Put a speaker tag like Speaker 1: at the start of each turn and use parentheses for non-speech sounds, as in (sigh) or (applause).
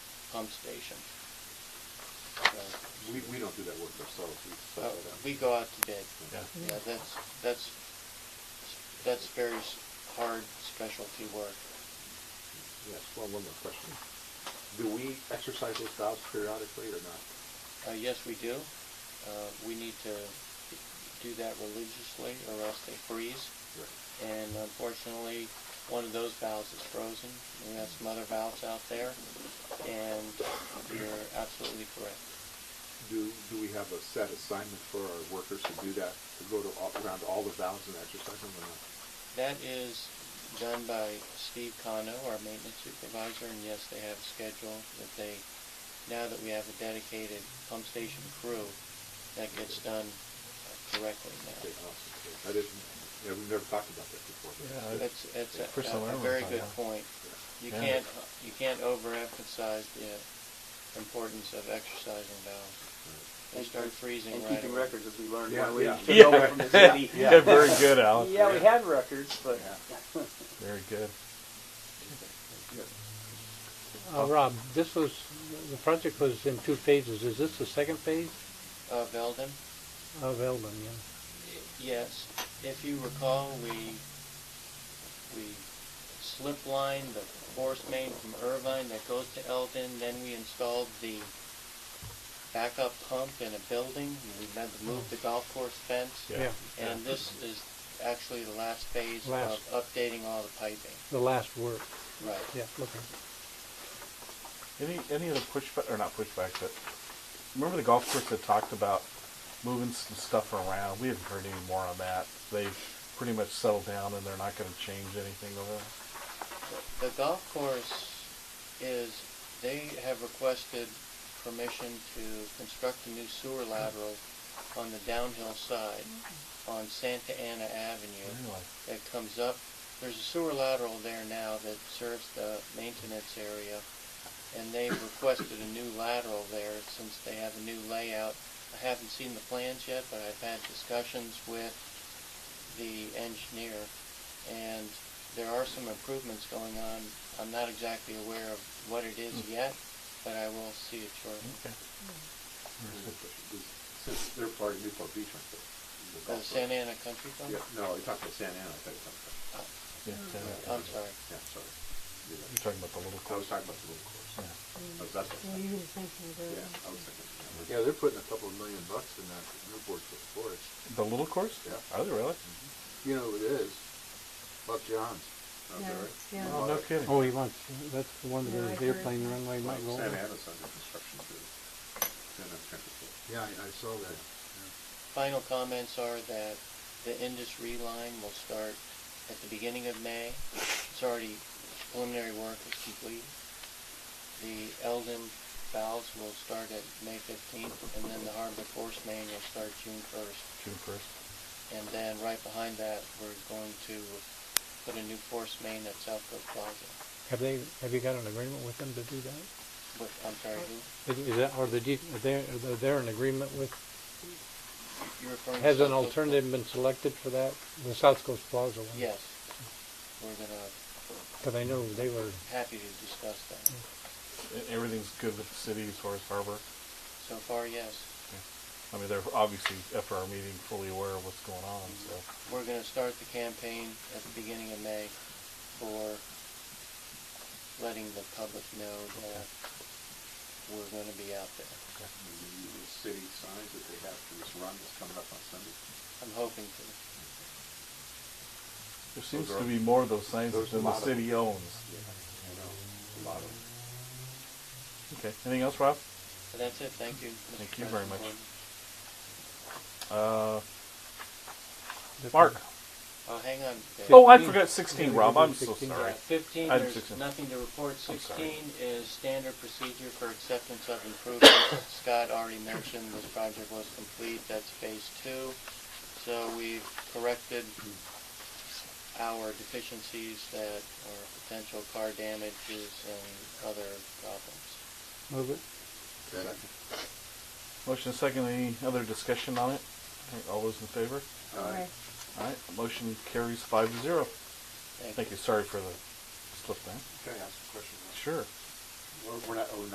Speaker 1: pump stations. So,
Speaker 2: We, we don't do that work ourselves, we
Speaker 1: uh,
Speaker 2: set that
Speaker 1: We
Speaker 2: out.
Speaker 1: go out to bid.
Speaker 2: Yeah.
Speaker 1: Yeah, that's, that's, that's very s- hard specialty work.
Speaker 2: Yes, well, one more question. Do we exercise those valves periodically or not?
Speaker 1: Uh, yes, we do. Uh, we need to do that religiously or else they freeze.
Speaker 2: Right.
Speaker 1: And unfortunately, one of those valves is frozen. We have some other valves out there. And you're absolutely correct.
Speaker 2: Do, do we have a set assignment for our workers to do that, to go to, all- around all the valves and exercise them or not?
Speaker 1: That is done by Steve Cono, our maintenance supervisor, and yes, they have a schedule that they, now that we have a dedicated pump station crew, that gets done correctly
Speaker 2: Okay,
Speaker 1: now.
Speaker 2: awesome. Okay. That is, yeah, we've never talked about that before. but-
Speaker 3: Yeah, I-
Speaker 1: That's, that's a-
Speaker 3: First time I
Speaker 1: a, a
Speaker 3: learned
Speaker 1: very
Speaker 3: about
Speaker 1: good
Speaker 3: that.
Speaker 1: point.
Speaker 2: Yeah.
Speaker 1: You
Speaker 3: Yeah.
Speaker 1: can't, you can't overemphasize the importance of exercising valves. They start freezing
Speaker 4: And
Speaker 1: right
Speaker 4: keeping
Speaker 1: away.
Speaker 4: records as we learn
Speaker 2: Yeah,
Speaker 4: one way
Speaker 2: yeah.
Speaker 4: to get over from the city.
Speaker 2: (laughs)
Speaker 3: (laughs) Yeah, very good, Alan.
Speaker 4: Yeah, we have records, but
Speaker 3: Very good.
Speaker 5: Uh, Rob, this was, the project was in two phases. Is this the second phase
Speaker 1: Uh, Veldon?
Speaker 5: of Eldon, yeah?
Speaker 1: Yes, if you recall, we, we slip lined the force main from Irvine that goes to Eldon, then we installed the backup pump in a building, we had to move the golf course fence.
Speaker 3: Yeah.
Speaker 1: And this is actually the last phase
Speaker 5: Last.
Speaker 1: of updating all the piping.
Speaker 5: The last work,
Speaker 1: Right.
Speaker 5: yeah, okay.
Speaker 3: Any any of the pushback or not pushback, but remember the golf course that talked about moving some stuff around. We haven't heard any more on that. They've pretty much settled down and they're not going to change anything over there.
Speaker 1: The golf course is, they have requested permission to construct a new sewer lateral on the downhill side on Santa Ana Avenue
Speaker 3: Anyway,
Speaker 1: that comes up. There's a sewer lateral there now that serves the maintenance area, and they've requested a new lateral there since they have a new layout. I haven't seen the plans yet, but I've had discussions with the engineer, and there are some improvements going on. I'm not exactly aware of what it is yet, but I will see it shortly.
Speaker 3: okay.
Speaker 2: Since they're part of Newport Beach, aren't they? The
Speaker 1: Uh,
Speaker 2: golf
Speaker 1: Santa Ana Country
Speaker 2: course.
Speaker 1: Club?
Speaker 2: Yeah, no, you talked about Santa Ana, I thought you talked
Speaker 1: Oh.
Speaker 2: about,
Speaker 3: Yeah, yeah.
Speaker 1: I'm sorry.
Speaker 2: yeah, sorry. You're
Speaker 3: You're
Speaker 2: right.
Speaker 3: talking about the little
Speaker 2: Mm-hmm. I was talking about the little course.
Speaker 3: course. Yeah.
Speaker 2: I was- that's what I
Speaker 6: Well,
Speaker 2: was
Speaker 6: you
Speaker 2: thinking.
Speaker 6: were just thinking of
Speaker 2: Yeah, I
Speaker 6: it.
Speaker 2: was thinking. Yeah, they're putting a couple of million bucks in that Newport for the forest.
Speaker 3: The little course?
Speaker 2: Yeah.
Speaker 3: Are they really?
Speaker 2: You know who it is? Buck Johns. out
Speaker 6: Yeah,
Speaker 2: there.
Speaker 6: yeah.
Speaker 3: Oh, no kidding.
Speaker 5: Oh, he wants, that's the one
Speaker 6: Yeah,
Speaker 5: that his
Speaker 6: I heard.
Speaker 5: airplane runway
Speaker 2: Well,
Speaker 5: might go
Speaker 2: Santa
Speaker 5: over.
Speaker 2: Ana's under construction too. Santa Ana Transit Authority.
Speaker 7: Yeah, I, I saw that.
Speaker 1: Final comments are that the industry line will start at the beginning of May. It's already, preliminary work is complete. The Eldon valves will start at May 15th, and then the Harbor Force Main will start June 1st.
Speaker 3: June first.
Speaker 1: And then right behind that, we're going to put a new force main at South Coast Plaza.
Speaker 5: Have they, have you got an agreement with them to do that?
Speaker 1: But, I'm sorry, who?
Speaker 5: Is- Is that, are the, de- are they, are they in agreement with,
Speaker 1: You're referring to
Speaker 5: has an
Speaker 1: South Coast Plaza?
Speaker 5: alternative been selected for that? The South Coast Plaza one?
Speaker 1: Yes. We're gonna,
Speaker 5: Because I know they were,
Speaker 1: happy to discuss that.
Speaker 5: Mm.
Speaker 3: E-, Everything's good with the city as far as harbor.
Speaker 1: So far, yes.
Speaker 3: I mean, they're obviously after our meeting fully aware of what's going on. So
Speaker 1: We're gonna start the campaign at the beginning of May for letting the public know that we're gonna be out there.
Speaker 2: The the city signs that they have for this run that's coming up on Sunday.
Speaker 1: I'm hoping to.
Speaker 3: there seems
Speaker 2: Those are-
Speaker 3: to be more of those signs
Speaker 2: those
Speaker 3: than
Speaker 2: are a
Speaker 3: the
Speaker 2: lot of
Speaker 3: city owns.
Speaker 2: I know, a lot of them.
Speaker 3: Okay. Anything else, Rob?
Speaker 1: But that's it, thank you. Mr.
Speaker 3: Thank you very
Speaker 1: President
Speaker 3: much.
Speaker 1: Gordon.
Speaker 3: Uh, Mark.
Speaker 1: Uh, hang on. Dave.
Speaker 3: Oh, I forgot 16, Rob. I'm so
Speaker 5: 16.
Speaker 3: sorry.
Speaker 1: Fifteen,
Speaker 3: Item
Speaker 1: there's
Speaker 3: 16.
Speaker 1: nothing to report.
Speaker 3: I'm sorry.
Speaker 1: Sixteen is standard procedure for acceptance of improvements. Scott already mentioned this project was complete, that's phase two. So we've corrected our deficiencies that are potential car damages and other problems.
Speaker 5: move it.
Speaker 3: Motion second. Any other discussion on it? Okay, All those in favor?
Speaker 2: Aye.
Speaker 3: All right. Motion carries five to zero.
Speaker 1: Thank you.
Speaker 3: Thank you. Sorry for the slip there.
Speaker 2: Can I ask a question?
Speaker 3: Sure.
Speaker 2: We're, we're not, oh,